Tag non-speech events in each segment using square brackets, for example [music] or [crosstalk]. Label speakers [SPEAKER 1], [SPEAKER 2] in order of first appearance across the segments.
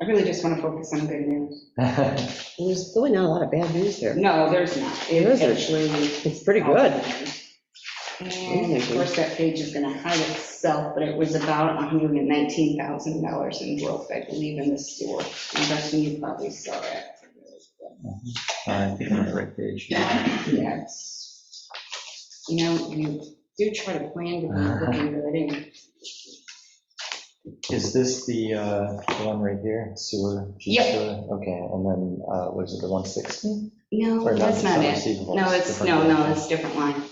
[SPEAKER 1] I really just want to focus on good news.
[SPEAKER 2] [laughs] Uh,
[SPEAKER 3] There's really not a lot of bad news there.
[SPEAKER 1] No, there's not. It
[SPEAKER 3] There isn't.
[SPEAKER 1] actually.
[SPEAKER 3] It's pretty good.
[SPEAKER 1] And of course, that page is going to hide itself, but it was about $119,000 in growth, I believe, in the sewer. I'm guessing you probably saw it.
[SPEAKER 2] I think I'm on the right page.
[SPEAKER 1] Yes. You know, you do try to plan, but you're looking good in.
[SPEAKER 2] Is this the, uh, the one right here, sewer? G
[SPEAKER 1] Yep.
[SPEAKER 2] sewer? Okay, and then, uh, was it the 160?
[SPEAKER 1] No,
[SPEAKER 2] Or
[SPEAKER 1] that's not it.
[SPEAKER 2] receivable,
[SPEAKER 1] No, it's, no,
[SPEAKER 2] different.
[SPEAKER 1] no, it's a different line.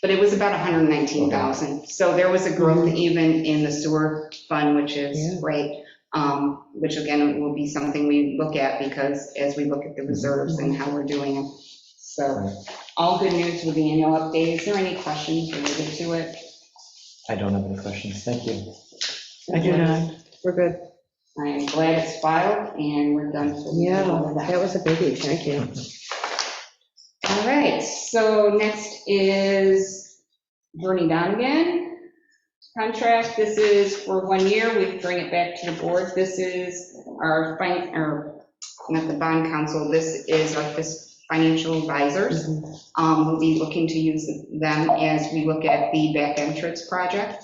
[SPEAKER 1] But it was about 119,000. So there was a growth even in the sewer fund, which
[SPEAKER 3] Yeah.
[SPEAKER 1] is great, um, which again will be something we look at because as we look at the reserves and how we're doing it.
[SPEAKER 2] Right.
[SPEAKER 1] So all good news with the annual update. Is there any questions related to it?
[SPEAKER 2] I don't have any questions, thank you.
[SPEAKER 3] I do not. We're good.
[SPEAKER 1] I'm glad it's filed and we're done. for the
[SPEAKER 3] Yeah,
[SPEAKER 1] all of
[SPEAKER 3] that was a biggie. Thank you.
[SPEAKER 1] All right, so next is Bernie Donigan contract. This is for one year. We bring it back to the board. This is our, fin- our, not the bond council, this is our fis- financial advisors.
[SPEAKER 3] Mhm.
[SPEAKER 1] Um, We'll be looking to use them as we look at the back entrance project.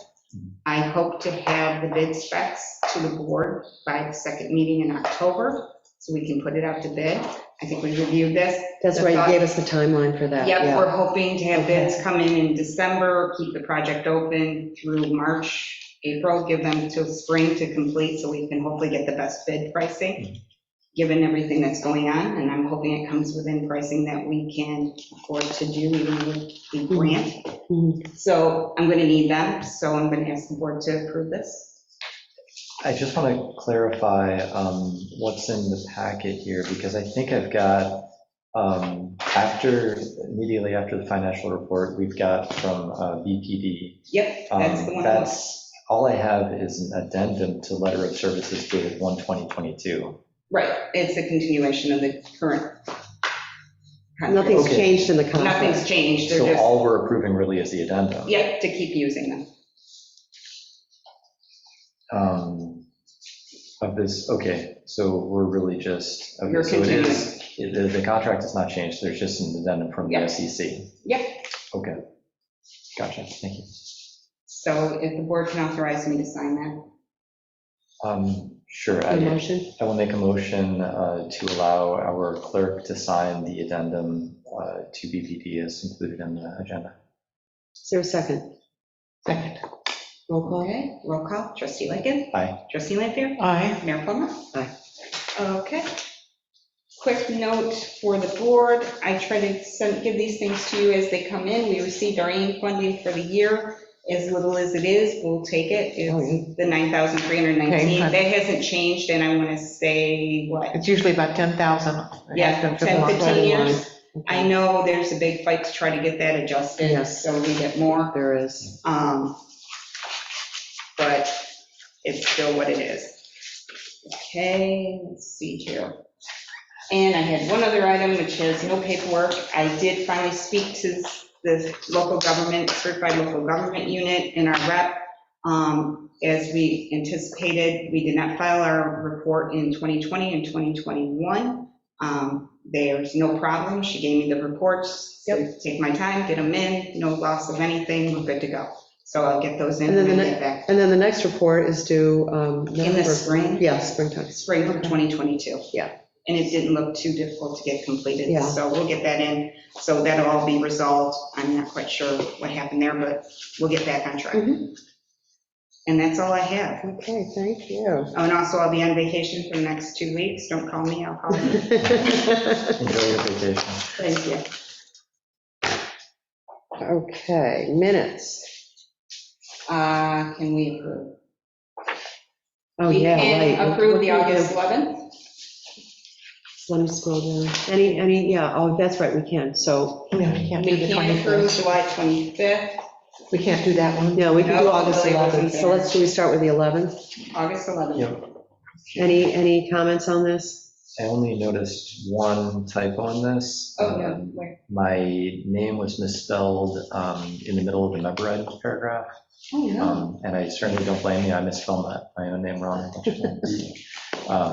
[SPEAKER 1] I hope to have the bid specs to the board by the second meeting in October, so we can put it out to bid. I think we reviewed this.
[SPEAKER 3] That's why you gave us the timeline for that.
[SPEAKER 1] Yep,
[SPEAKER 3] Yeah.
[SPEAKER 1] we're hoping to have bids come in in December, keep the project open through March, April, give them till spring to complete, so we can hopefully get the best bid pricing, given everything that's going on, and I'm hoping it comes within pricing that we can afford to do, even with the grant.
[SPEAKER 3] Mhm.
[SPEAKER 1] So I'm gonna need them, so I'm gonna ask the board to approve this.
[SPEAKER 2] I just want to clarify um, what's in the packet here, because I think I've got, um, after, immediately after the financial report, we've got from uh, BPD.
[SPEAKER 1] Yep,
[SPEAKER 2] Um,
[SPEAKER 1] that's the one.
[SPEAKER 2] That's, all I have is an addendum to letter of services dated 1/2022.
[SPEAKER 1] Right, it's a continuation of the current. contract.
[SPEAKER 3] Nothing's
[SPEAKER 2] Okay.
[SPEAKER 3] changed in the
[SPEAKER 1] Nothing's
[SPEAKER 3] contract.
[SPEAKER 1] changed, they're
[SPEAKER 2] So
[SPEAKER 1] just,
[SPEAKER 2] all we're approving really is the addendum.
[SPEAKER 1] yeah, to keep using them.
[SPEAKER 2] um, Of this, okay, so we're really just, okay,
[SPEAKER 1] You're
[SPEAKER 2] so it is, it- the the contract has not changed, there's just an addendum from the
[SPEAKER 1] Yep.
[SPEAKER 2] SEC.
[SPEAKER 1] Yep.
[SPEAKER 2] Okay, gotcha, thank you.
[SPEAKER 1] So if the board can authorize me to sign that.
[SPEAKER 2] Um, Sure,
[SPEAKER 3] A
[SPEAKER 2] I
[SPEAKER 3] motion?
[SPEAKER 2] I will make a motion uh, to allow our clerk to sign the addendum uh, to BPD as included in the agenda.
[SPEAKER 3] Is there a second? Second. Roll call?
[SPEAKER 1] Okay, roll call. Trustee Lightgev.
[SPEAKER 2] Aye.
[SPEAKER 1] Trustee Lanfair.
[SPEAKER 3] Aye.
[SPEAKER 1] Mayor Plummer.
[SPEAKER 3] Aye.
[SPEAKER 1] Okay. Quick note for the board. I try to send, give these things to you as they come in. We received our AIM funding for the year. As little as it is, we'll take it.
[SPEAKER 3] Oh,
[SPEAKER 1] It's
[SPEAKER 3] yeah.
[SPEAKER 1] the 9,319.
[SPEAKER 4] Okay,
[SPEAKER 1] That
[SPEAKER 4] fine.
[SPEAKER 1] hasn't changed, and I want to say, what?
[SPEAKER 4] It's usually about 10,000.
[SPEAKER 1] Yeah,
[SPEAKER 4] After
[SPEAKER 1] 10,
[SPEAKER 4] the
[SPEAKER 1] 15 years.
[SPEAKER 3] Okay.
[SPEAKER 1] I know there's a big fight to try to get that adjusted,
[SPEAKER 3] Yes.
[SPEAKER 1] so we get more.
[SPEAKER 3] There is.
[SPEAKER 1] Um, But it's still what it is. Okay, let's see here. And I had one other item, which has no paperwork. I did finally speak to the local government, certified local government unit in our rep. Um, As we anticipated, we did not file our report in 2020 and 2021. Um, There's no problem. She gave me the reports.
[SPEAKER 3] Yep.
[SPEAKER 1] Take my time, get them in, no loss of anything, we're good to go. So I'll get those in
[SPEAKER 3] And then
[SPEAKER 1] when
[SPEAKER 3] the
[SPEAKER 1] I
[SPEAKER 3] ne-
[SPEAKER 1] get back
[SPEAKER 3] And then the next report is due. um,
[SPEAKER 1] in the
[SPEAKER 3] November-
[SPEAKER 1] spring,
[SPEAKER 3] Yeah, springtime.
[SPEAKER 1] spring of 2022.
[SPEAKER 3] Yeah.
[SPEAKER 1] And it didn't look too difficult to get completed,
[SPEAKER 3] Yeah.
[SPEAKER 1] so we'll get that in. So that'll all be resolved. I'm not quite sure what happened there, but we'll get back on track.
[SPEAKER 3] Mhm.
[SPEAKER 1] And that's all I have.
[SPEAKER 3] Okay, thank you. [laughs]
[SPEAKER 1] Oh, and also I'll be on vacation for the next two weeks. Don't call me, I'll call
[SPEAKER 3] [laughs]
[SPEAKER 1] you.
[SPEAKER 2] Enjoy your vacation.
[SPEAKER 1] Thank you.
[SPEAKER 3] Okay, minutes.
[SPEAKER 1] Uh, Can we approve?
[SPEAKER 3] Oh, yeah,
[SPEAKER 1] We
[SPEAKER 3] right.
[SPEAKER 1] can
[SPEAKER 3] What-
[SPEAKER 1] approve
[SPEAKER 3] what
[SPEAKER 1] the
[SPEAKER 3] do we do?
[SPEAKER 1] August 11th.
[SPEAKER 3] Let me scroll down. Any, any, yeah, oh, that's right, we can. So,
[SPEAKER 4] Yeah, We can't do
[SPEAKER 1] We
[SPEAKER 4] the
[SPEAKER 1] can approve
[SPEAKER 4] 21st.
[SPEAKER 1] July 25th,
[SPEAKER 4] We can't do that one.
[SPEAKER 3] no, we can do
[SPEAKER 1] No,
[SPEAKER 3] August
[SPEAKER 1] really wasn't
[SPEAKER 3] 11th. So let's, do we start with the 11th?
[SPEAKER 1] August 11th.
[SPEAKER 2] Yep.
[SPEAKER 3] Any, any comments on this?
[SPEAKER 2] I only noticed one typo in this.
[SPEAKER 1] Oh, yeah,
[SPEAKER 2] Um,
[SPEAKER 1] where?
[SPEAKER 2] My name was misspelled um, in the middle of the member ed paragraph,
[SPEAKER 1] Oh, no.
[SPEAKER 2] um, and I certainly don't blame you, I misspelled my my own name wrong. a bunch of times. Um,